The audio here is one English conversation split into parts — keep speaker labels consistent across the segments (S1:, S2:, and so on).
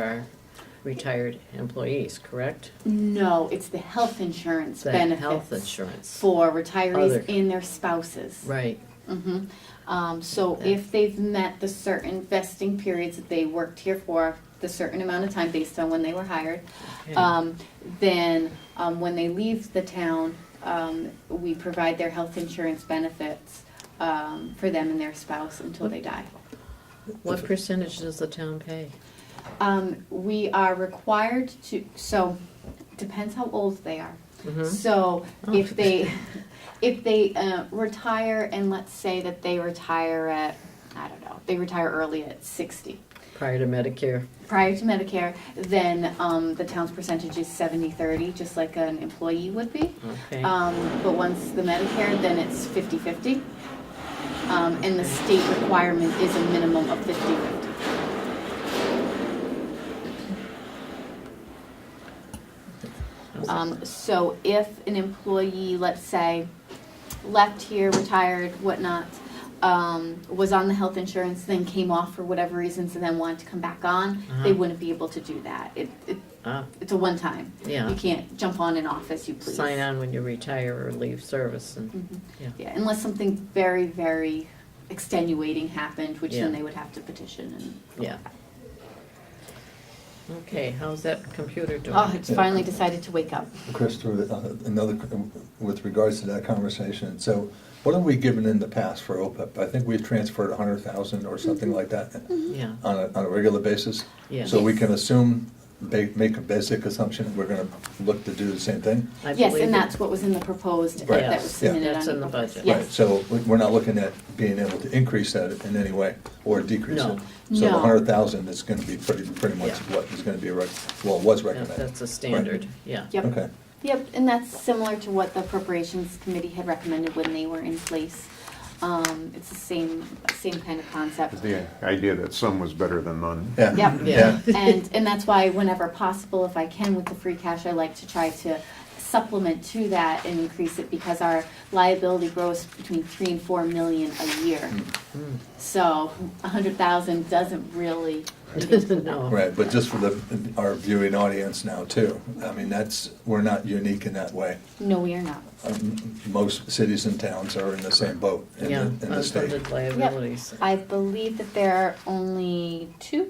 S1: our retired employees, correct?
S2: No, it's the health insurance
S1: The
S2: benefits.
S1: health insurance.
S2: For
S1: Other-
S2: retirees and their spouses.
S1: Right,
S2: Mhm. Um, so if they've met the certain vesting periods that they worked here for, the certain amount of time based on when they were hired,
S1: okay.
S2: um, then, um, when they leave the town, um, we provide their health insurance benefits, um, for them and their spouse until they die.
S1: What percentage does the town pay?
S2: Um, we are required to, so, depends how old they are.
S1: Mhm.
S2: So
S1: Oh.
S2: if they, if they uh, retire, and let's say that they retire at, I don't know, they retire early at 60,
S1: Prior to Medicare,
S2: prior to Medicare, then um, the town's percentage is 70-30, just like an employee would be.
S1: okay.
S2: Um, But once the Medicare, then it's 50-50. Um, And the state requirement is a minimum of 50-50. Um, so if an employee, let's say, left here, retired, whatnot, um, was on the health insurance, then came off for whatever reasons, and then wanted to come back on, they
S1: Uh-huh.
S2: wouldn't be able to do that. It, it,
S1: Ah,
S2: it's a one time. You
S1: Yeah,
S2: can't jump on and off as you please.
S1: sign on when you retire or leave service and,
S2: Mhm.
S1: Yeah.
S2: Yeah, unless something very, very extenuating happened, which then
S1: Yeah.
S2: they would have to petition and.
S1: yeah. Okay, how's that computer doing?
S2: Oh, it's finally decided to wake up.
S3: Chris, through uh, another, with regards to that conversation, so what have we given in the past for OPEB? I think we've transferred a hundred thousand or something like that
S1: Yeah,
S3: on a, on a regular basis.
S1: yeah.
S3: So we can assume, ba- make a basic assumption, we're gonna look to do the same thing?
S1: I
S2: Yes,
S1: believe it-
S2: and that's what was in the proposed,
S3: Right.
S2: that was
S1: Yes,
S2: submitted on.
S1: that's in the
S2: April first.
S1: budget.
S2: Yes.
S3: Right, So we- we're not looking at being able to increase that in any way or decrease
S1: No.
S3: it? So
S2: No.
S3: the hundred thousand is gonna be pretty, pretty much
S1: Yeah.
S3: what is gonna be, rec- well, was
S1: yeah,
S3: recommended.
S1: That's a standard, yeah.
S2: Yep.
S3: Okay,
S2: Yep, and that's similar to what the appropriations committee had recommended when they were in place. Um, it's the same, same kind of concept.
S4: The idea that some was better than none.
S3: yeah.
S2: Yep.
S1: Yeah.
S2: And, and that's why whenever possible, if I can with the free cash, I like to try to supplement to that and increase it because our liability grows between three and four million a year.
S1: Mm.
S2: So a hundred thousand doesn't really,
S1: No.
S3: Right, but just for the, our viewing audience now too, I mean, that's, we're not unique in that way.
S2: no, we are not.
S3: Um, Most cities and towns are in the same boat in
S1: Yeah,
S3: the, in the state.
S1: unfunded liabilities.
S2: I believe that there are only two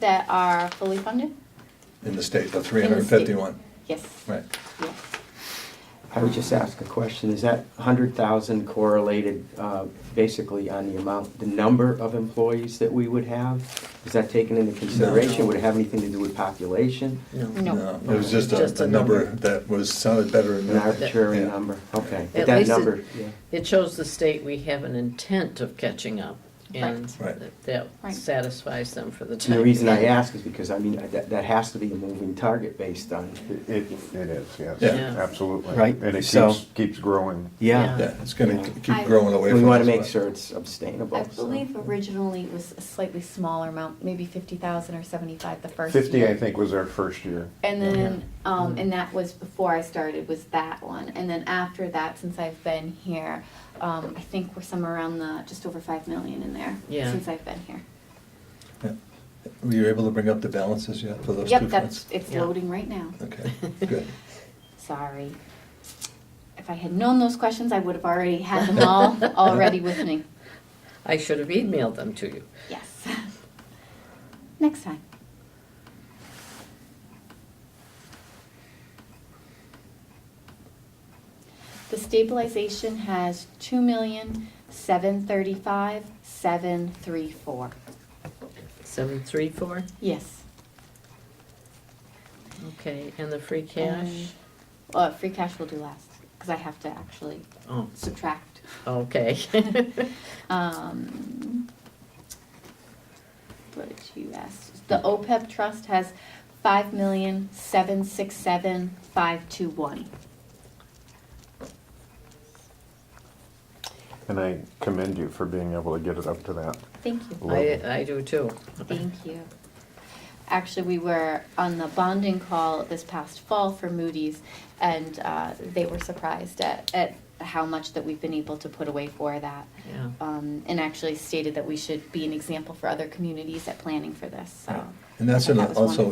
S2: that are fully funded?
S3: In the state, the three hundred and fifty-one,
S2: Yes,
S3: right.
S2: yes.
S5: I would just ask a question, is that hundred thousand correlated, uh, basically on the amount, the number of employees that we would have? Is that taken into consideration, would it have anything to do with population,
S1: No.
S2: No.
S3: It was just
S1: Just
S3: a,
S1: a
S3: a number
S1: number.
S3: that was, sounded better than
S5: an
S3: that.
S5: arbitrary
S3: Yeah.
S5: number? Okay,
S1: At
S5: but that
S1: least it-
S5: number, yeah.
S1: It shows the state we have an intent of catching up, and
S3: Right. Right.
S1: that- that
S2: Right.
S1: satisfies them for the time.
S5: And the reason I
S1: being.
S5: ask is because, I mean, that, that has to be a moving target based on,
S4: It, it is, yes,
S3: Yeah.
S1: Yeah.
S4: absolutely.
S5: Right,
S4: And it
S5: so-
S4: keeps, keeps growing.
S1: Yeah.
S5: yeah.
S3: Yeah, it's gonna
S5: Yeah.
S3: keep growing away from us.
S5: We wanna make
S3: but-
S5: sure it's
S2: I
S5: sustainable, so.
S2: believe originally it was a slightly smaller amount, maybe fifty thousand or seventy-five the first year.
S4: Fifty, I think, was our first year.
S2: And
S3: Yeah. Mm-hmm.
S2: then, um, and that was before I started, was that one, and then after that, since I've been here, um, I think we're somewhere around the, just over five million in there,
S1: Yeah.
S2: since I've been here.
S3: Were you able to bring up the balances yet for those two
S2: Yep, that's,
S3: funds?
S2: it's
S1: Yeah.
S2: loading right now,
S3: Okay, good.
S2: sorry. If I had known those questions, I would have already had them all, already with me,
S1: I should have emailed them to you.
S2: yes. Next time. The stabilization has two million, seven thirty-five, seven three four.
S1: Seven, three, four,
S2: Yes.
S1: okay, and the free cash?
S2: Uh, free cash will do last, because I have to actually
S1: Oh,
S2: subtract.
S1: okay.
S2: Um, what did you ask? The OPEB trust has five million, seven six seven, five two one.
S4: And I commend you for being able to get it up to that.
S2: Thank you.
S1: I, I do too.
S2: Thank you. Actually, we were on the bonding call this past fall for Moody's, and uh, they were surprised at, at how much that we've been able to put away for that.
S1: Yeah,
S2: Um, and actually stated that we should be an example for other communities at planning for this, so.
S3: And that's in
S2: That
S3: a-
S2: was
S3: also